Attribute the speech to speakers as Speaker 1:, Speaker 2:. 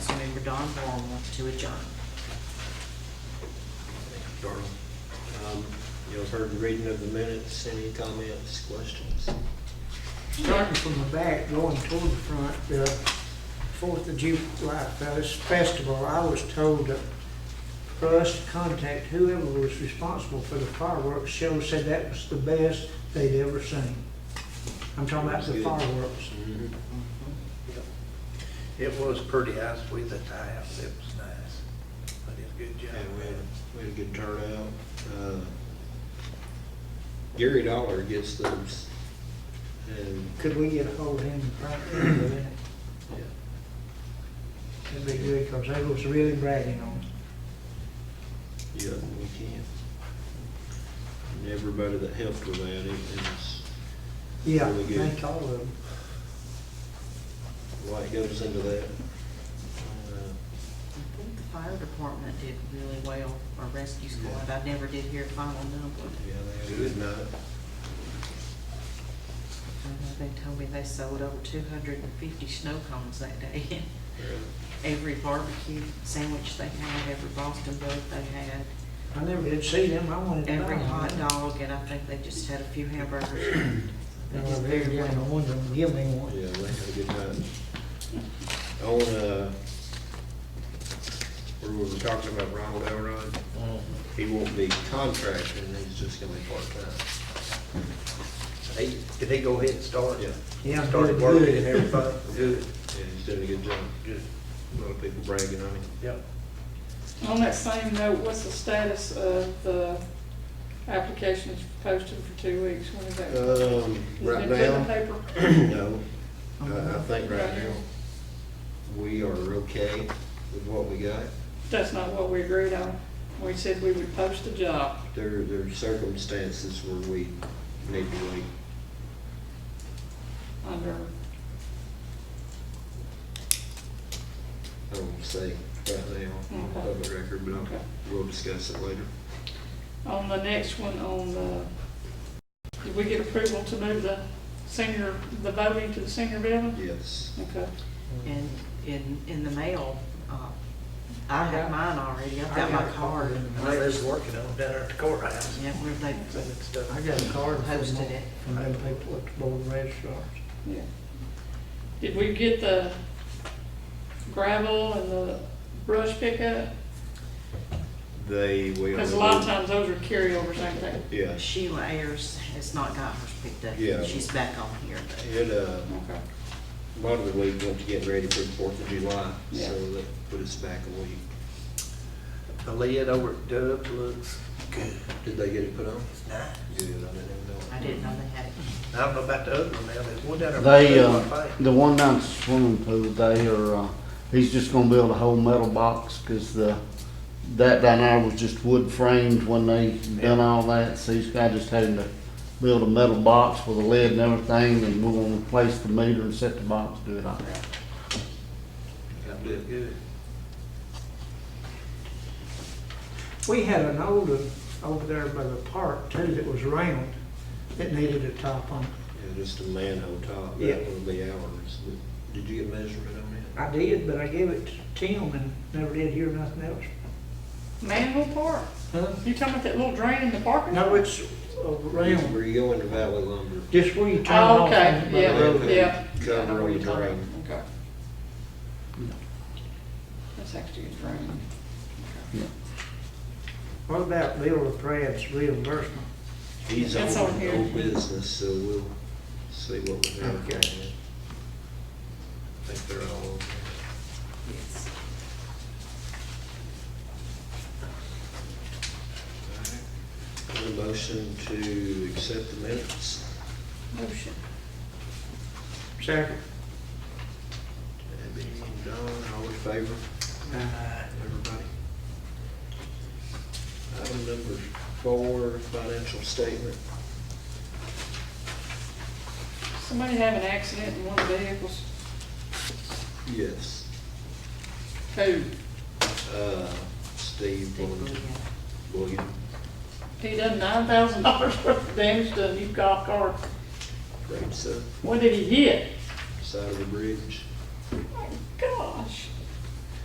Speaker 1: Don Borrell to adjourn.
Speaker 2: Darrell, um, y'all heard the reading of the minutes, any comments, questions?
Speaker 3: Starting from the back, going toward the front, the Fourth of July Fest- Festival, I was told that for us to contact whoever was responsible for the fireworks show, said that was the best they'd ever seen. I'm talking about the
Speaker 2: Good.
Speaker 3: fireworks.
Speaker 2: Mhm.
Speaker 4: It was pretty ice with the tiles, it was nice, but it's good job.
Speaker 2: Yeah, we had, we had a good turnout. Uh, Gary Dollar gets those, and,
Speaker 3: Could we get a hold of him and thank him for that?
Speaker 2: yeah,
Speaker 3: That'd be good, because they was really bragging on it.
Speaker 2: yeah, we can. And everybody that helped with that, it was,
Speaker 3: Yeah,
Speaker 2: Really good.
Speaker 3: thank all of them.
Speaker 2: a lot goes into that. Uh,
Speaker 1: I think the fire department did really well, or rescue squad, I never did hear a final number.
Speaker 2: Yeah, they had a good night.
Speaker 1: I know They told me they sold over two hundred and fifty snow cones that day. Every barbecue sandwich they had, every Boston bug they had,
Speaker 3: I never did see them, I wanted to buy
Speaker 1: every
Speaker 3: one.
Speaker 1: hot dog, and I think they just had a few hamburgers. Oh, They
Speaker 3: And I
Speaker 1: just
Speaker 3: really
Speaker 1: very
Speaker 3: wanted
Speaker 1: well.
Speaker 3: one of them, give me one.
Speaker 2: Yeah, they had a good time. On, uh, where we were talking about Ronald Elrod, he won't be contracted, and he's just gonna be part-time.
Speaker 4: He, did he go ahead and start?
Speaker 2: Yeah,
Speaker 3: Yeah,
Speaker 4: Started
Speaker 3: good,
Speaker 4: working
Speaker 3: good.
Speaker 4: and everything, good,
Speaker 2: yeah, he's doing a good job.
Speaker 4: good,
Speaker 2: A lot of people bragging on him.
Speaker 4: yep.
Speaker 5: On that same note, what's the status of the applications posted for two weeks? When is that?
Speaker 2: Um, right
Speaker 5: Is it in the
Speaker 2: now,
Speaker 5: paper?
Speaker 2: no, I, I think right now, we are okay with what we got.
Speaker 5: That's not what we agreed on. We said we would post the job.
Speaker 2: There, there are circumstances where we need to wait.
Speaker 5: under,
Speaker 2: I don't say right now, on
Speaker 5: Okay.
Speaker 2: public record, but
Speaker 5: Okay.
Speaker 2: I'll- we'll discuss it later.
Speaker 5: on the next one, on the, did we get approval to move the senior, the voting to the senior building?
Speaker 2: Yes.
Speaker 5: Okay.
Speaker 1: And in, in the mail, uh, I have mine already, I've got my card.
Speaker 4: I was working on down there at the courthouse,
Speaker 1: Yeah, where they
Speaker 4: sending stuff.
Speaker 3: I got a card from
Speaker 1: Posted
Speaker 3: them,
Speaker 1: it.
Speaker 3: from them people at the Board of Registrars.
Speaker 5: Yeah. Did we get the gravel and the brush pickup?
Speaker 2: They will.
Speaker 5: Because a lot of times those are carryovers, ain't they?
Speaker 2: Yeah,
Speaker 1: Sheila Ayers has not got hers picked up.
Speaker 2: Yeah.
Speaker 1: She's back on here, but
Speaker 2: it, uh,
Speaker 5: Okay.
Speaker 2: a lot of the week went to get ready for the Fourth of July,
Speaker 5: Yeah.
Speaker 2: so that put us back a week.
Speaker 4: The lid over at Dub's looks good,
Speaker 2: Did they get it put on?
Speaker 4: it's nice.
Speaker 2: Good, I didn't know.
Speaker 1: I didn't know they had it.
Speaker 4: I don't know about the other one now, there's one down there. by
Speaker 6: They,
Speaker 4: the pool,
Speaker 3: um,
Speaker 6: uh,
Speaker 4: I think.
Speaker 6: the one down at the swimming pool, they are, uh, he's just gonna build a whole metal box, cause the, that down there was just wood framed when they done all that, so he's got just having to build a metal box with a lid and everything, and we're gonna replace the meter and set the box, do it all.
Speaker 2: I
Speaker 4: That
Speaker 2: did.
Speaker 4: looked good.
Speaker 3: We had an old one over there by the park too that was round, that needed a top on it.
Speaker 2: Yeah, just a manhole top,
Speaker 3: Yeah.
Speaker 2: that would be ours, but did you get measurement on that?
Speaker 3: I did, but I gave it to Tim and never did hear nothing else.
Speaker 5: Manhole Park?
Speaker 3: Huh?
Speaker 5: You talking about that little drain in the parking lot?
Speaker 3: No, it's around,
Speaker 2: Where you go into Valley Lumber.
Speaker 3: just where you turn
Speaker 5: Oh,
Speaker 3: off.
Speaker 5: okay,
Speaker 3: on the
Speaker 5: yeah,
Speaker 3: road.
Speaker 5: yeah.
Speaker 2: Cover
Speaker 5: I know what you're talking
Speaker 2: drain.
Speaker 5: about. Okay. That's actually a drain.
Speaker 3: What about Bill LaPrave's reimbursement?
Speaker 2: He's
Speaker 5: That's
Speaker 2: on
Speaker 5: on here.
Speaker 2: old business, so we'll see what we have.
Speaker 3: Okay.
Speaker 2: I think they're all,
Speaker 1: Yes.
Speaker 2: okay. Need a motion to accept the minutes.
Speaker 5: Motion.
Speaker 3: Second.
Speaker 2: Debbie and Don, all in favor?
Speaker 3: Uh,
Speaker 2: Everybody. Item number four, financial statement.
Speaker 5: Somebody have an accident in one of the vehicles?
Speaker 2: Yes.
Speaker 5: Who?
Speaker 2: Uh, Steve
Speaker 1: Steve
Speaker 2: Williams.
Speaker 1: Booyan.
Speaker 2: William,
Speaker 5: He done nine thousand dollars worth of damage to a new golf cart.
Speaker 2: Great, so,
Speaker 5: What did he hit?
Speaker 2: side of the bridge.